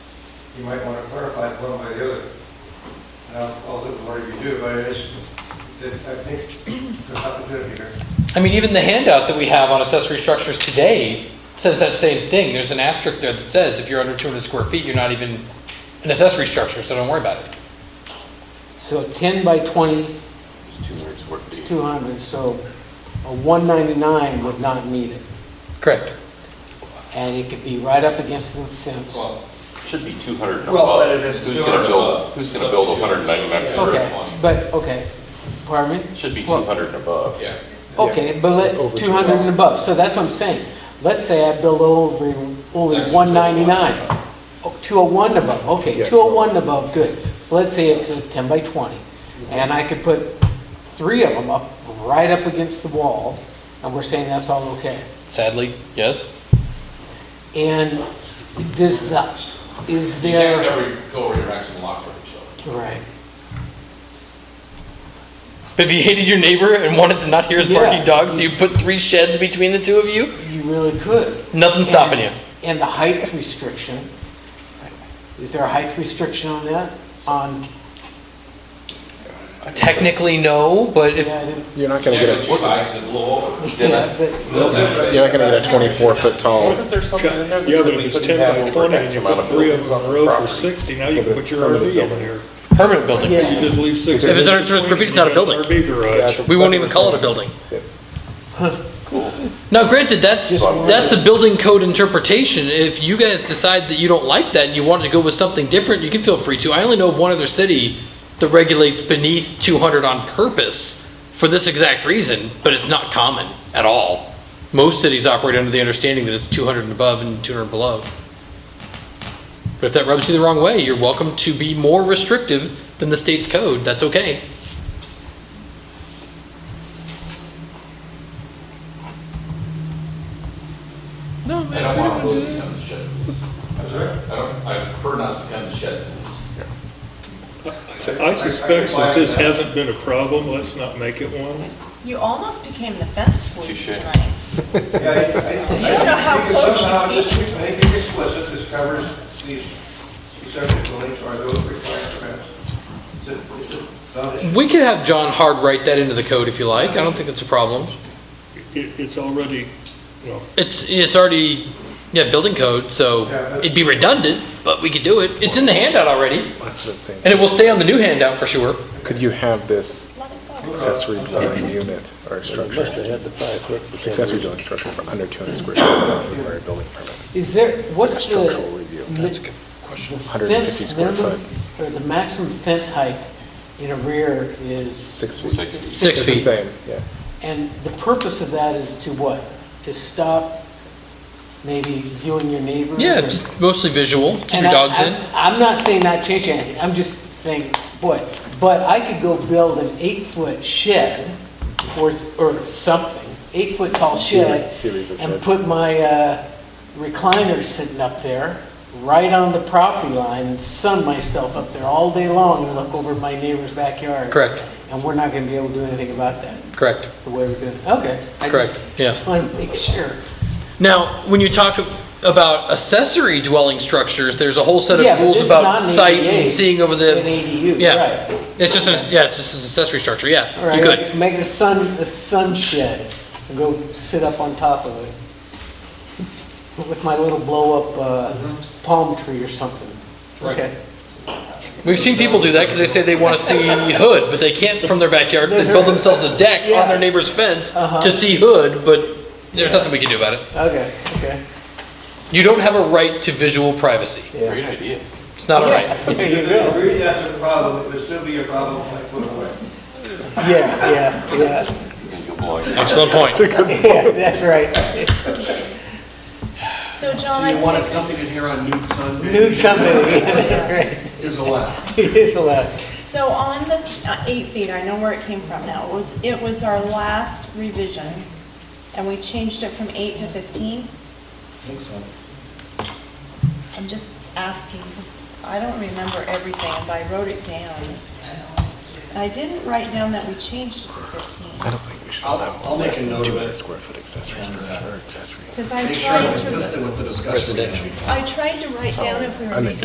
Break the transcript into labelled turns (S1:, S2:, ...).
S1: you might want to clarify it one way or the other. And I'll, I'll look at what you do, but it is, it- I think there's opportunity here.
S2: I mean, even the handout that we have on accessory structures today says that same thing. There's an asterisk there that says if you're under 200 square feet, you're not even an accessory structure, so don't worry about it.
S3: So 10 by 20,
S4: It's 200 square feet.
S3: 200, so a 199 would not need it.
S2: Correct.
S3: And it could be right up against the fence.
S4: Should be 200 and
S1: Well, but if
S4: above.
S1: it's
S4: Who's going to
S1: 200
S4: build, who's going to build 199 square?
S3: Okay, but, okay, pardon me?
S4: feet? Should be
S3: Well,
S4: 200 and above.
S5: Yeah.
S3: Okay, but let, 200 and above, so that's what I'm saying. Let's say I build over, only
S5: That's
S3: 199. Oh, 201 above, okay, 201 above, good. So let's say it's a 10 by 20, and I could put three of them up, right up against the wall, and we're saying that's all okay.
S2: Sadly, yes.
S3: And does the, is
S5: You can't
S3: there,
S5: ever go over your maximum lot coverage, so.
S3: right,
S2: But if you hated your neighbor and wanted to not hear his barking
S3: Yeah.
S2: dogs, you put three sheds between the two of you,
S3: you really could.
S2: nothing's stopping you.
S3: And- And the height restriction, is there a height restriction on that? On,
S2: Technically, no, but if,
S3: yeah, I didn't-
S6: You're not
S5: You
S6: gonna
S5: can't
S6: get
S5: go
S6: a,
S5: two bikes and blow over.
S3: yeah,
S4: Dennis,
S3: but
S6: you're not gonna get a twenty-four foot tall.
S4: wasn't there something in there that
S7: The other
S4: said
S7: one
S4: we
S7: is
S4: couldn't
S7: ten
S4: have
S7: by
S4: over
S7: twenty, and
S4: X
S7: you
S4: amount
S7: put
S4: of
S7: three of
S4: buildings
S7: them on
S4: on
S7: the road for
S4: property?
S7: sixty, now you can put your RV in there.
S2: permanent buildings.
S7: You just leave sixty.
S2: If it's under 200 square feet, it's not a building.
S7: RV garage.
S2: We won't even call it a building. Now granted, that's, that's a building code interpretation. If you guys decide that you don't like that and you wanted to go with something different, you can feel free to. I only know of one other city that regulates beneath two hundred on purpose for this exact reason, but it's not common at all. Most cities operate under the understanding that it's two hundred and above and two hundred and below. But if that rubs you the wrong way, you're welcome to be more restrictive than the state's code. That's okay.
S5: I don't want to become the shed police. I'm sorry? I don't, I prefer not to become the shed police.
S7: I suspect since this hasn't been a problem, let's not make it one.
S8: You almost became the fence police
S4: Touche.
S8: tonight.
S1: Yeah, I- I-
S8: You don't know how
S1: I think
S8: close
S1: Somehow,
S8: you
S1: this, make it explicit, this covers these accessory buildings or those required permits. It's a- it's a foundation.
S2: We could have John Hard write that into the code if you like. I don't think that's a problem.
S7: It, it's already, well,
S2: It's, it's already, yeah, building code, so it'd be redundant, but we could do it. It's in the handout already,
S6: That's the same.
S2: and it will stay on the new handout for sure.
S6: Could you have this accessory dwelling unit or structure? Accessory dwelling structure for under two hundred square feet, not require a building permit,
S3: is there, what's the?
S6: structural review.
S3: That's a
S6: Hundred and fifty
S3: Fence
S6: square
S3: minimum-
S6: foot,
S3: Or the maximum fence height in a rear is,
S6: six feet.
S4: Six.
S2: Six
S6: It's the
S2: feet.
S6: same, yeah.
S3: and the purpose of that is to what? To stop maybe viewing your neighbors?
S2: Yeah,
S3: or-
S2: it's mostly visual, keep
S3: And
S2: your
S3: I-
S2: dogs
S3: I-
S2: in.
S3: I'm not saying not change anything, I'm just saying, boy, but I could go build an eight-foot shed or, s- or something, eight-foot tall shed,
S6: Series- series of
S3: and
S6: sheds.
S3: put my uh, recliner sitting up there, right on the property line, and sun myself up there all day long and look over my neighbor's backyard.
S2: Correct,
S3: And we're not gonna be able to do anything about that,
S2: correct,
S3: the way we're doing, it. okay. I just
S2: correct, yeah.
S3: wanted to make sure.
S2: Now, when you talk about accessory dwelling structures, there's a whole set
S3: Yeah,
S2: of
S3: but
S2: rules
S3: this is
S2: about
S3: not an
S2: sight and
S3: ADA,
S2: seeing over
S3: An
S2: the,
S3: ADU,
S2: Uh, yeah.
S3: right.
S2: it's just, an yeah, it's just an accessory structure,
S3: All
S2: yeah,
S3: right,
S2: you could.
S3: Make a sun, a sun shed, and go sit up on top of it with my little blow-up uh,
S2: Mm-hmm.
S3: palm tree or something. Okay.
S2: We've seen people do that because they say they want to see hood, but they can't from their backyard. They build themselves a deck on their neighbor's fence
S3: Uh-huh.
S2: to see hood, but there's nothing we can do about it.
S3: Okay, okay.
S2: You don't have a right to visual privacy.
S4: Great idea.
S2: It's not a right.
S3: There
S1: If
S3: you
S1: they
S3: go.
S1: agree that's a problem, it would still be a problem five foot away.
S3: Yeah, yeah, yeah,
S4: You'll blow it.
S2: Excellent point.
S3: yeah, that's right.
S8: So John, I think,
S9: something in here on nude sun
S3: Nude something, yeah, that's great.
S9: is allowed.
S3: It is allowed.
S8: so on the uh, eight feet, I know where it came from now. It was, it was our last revision, and we changed it from eight to
S9: I
S8: 15.
S9: think so.
S8: I'm just asking, because I don't remember everything, and I wrote it down. And I didn't write down that we changed it to 15,
S6: think we should
S9: I'll, I'll make a note
S6: Two
S9: of
S6: hundred
S9: it.
S6: square foot accessory
S9: and,
S6: structure
S9: uh,
S6: or accessory.
S8: because I
S9: Make sure I'm
S8: tried to,
S9: consistent with the discussion. we had.
S8: I tried to write down if we were
S6: Residential.
S8: making